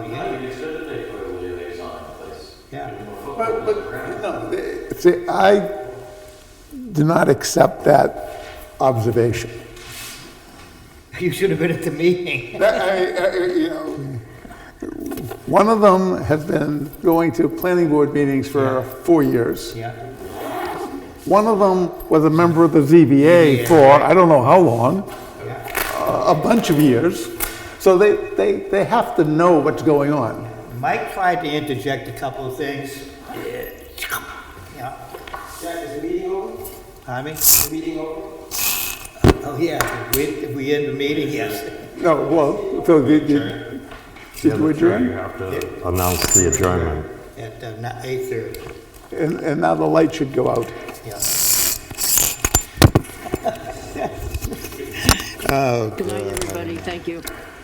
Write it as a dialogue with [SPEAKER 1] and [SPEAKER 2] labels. [SPEAKER 1] Yeah.
[SPEAKER 2] But, but, no, they-
[SPEAKER 3] See, I do not accept that observation.
[SPEAKER 1] You should have been at the meeting.
[SPEAKER 3] That- I- I- you know, One of them has been going to planning board meetings for four years.
[SPEAKER 1] Yeah.
[SPEAKER 3] One of them was a member of the ZBA for, I don't know how long, a a bunch of years. So they, they, they have to know what's going on.
[SPEAKER 1] Mike tried to interject a couple of things. Yeah.
[SPEAKER 4] Jack, is the meeting over?
[SPEAKER 1] Tommy?
[SPEAKER 4] The meeting over?
[SPEAKER 1] Oh, yeah. If we, if we end the meeting, yes.
[SPEAKER 3] No, well, so did, did did you
[SPEAKER 5] You
[SPEAKER 3] adjourn?
[SPEAKER 5] have to announce the adjournment.
[SPEAKER 1] At uh, eight thirty,
[SPEAKER 3] And, and now the light should go out.
[SPEAKER 1] yeah.
[SPEAKER 6] Good night, everybody. Thank you.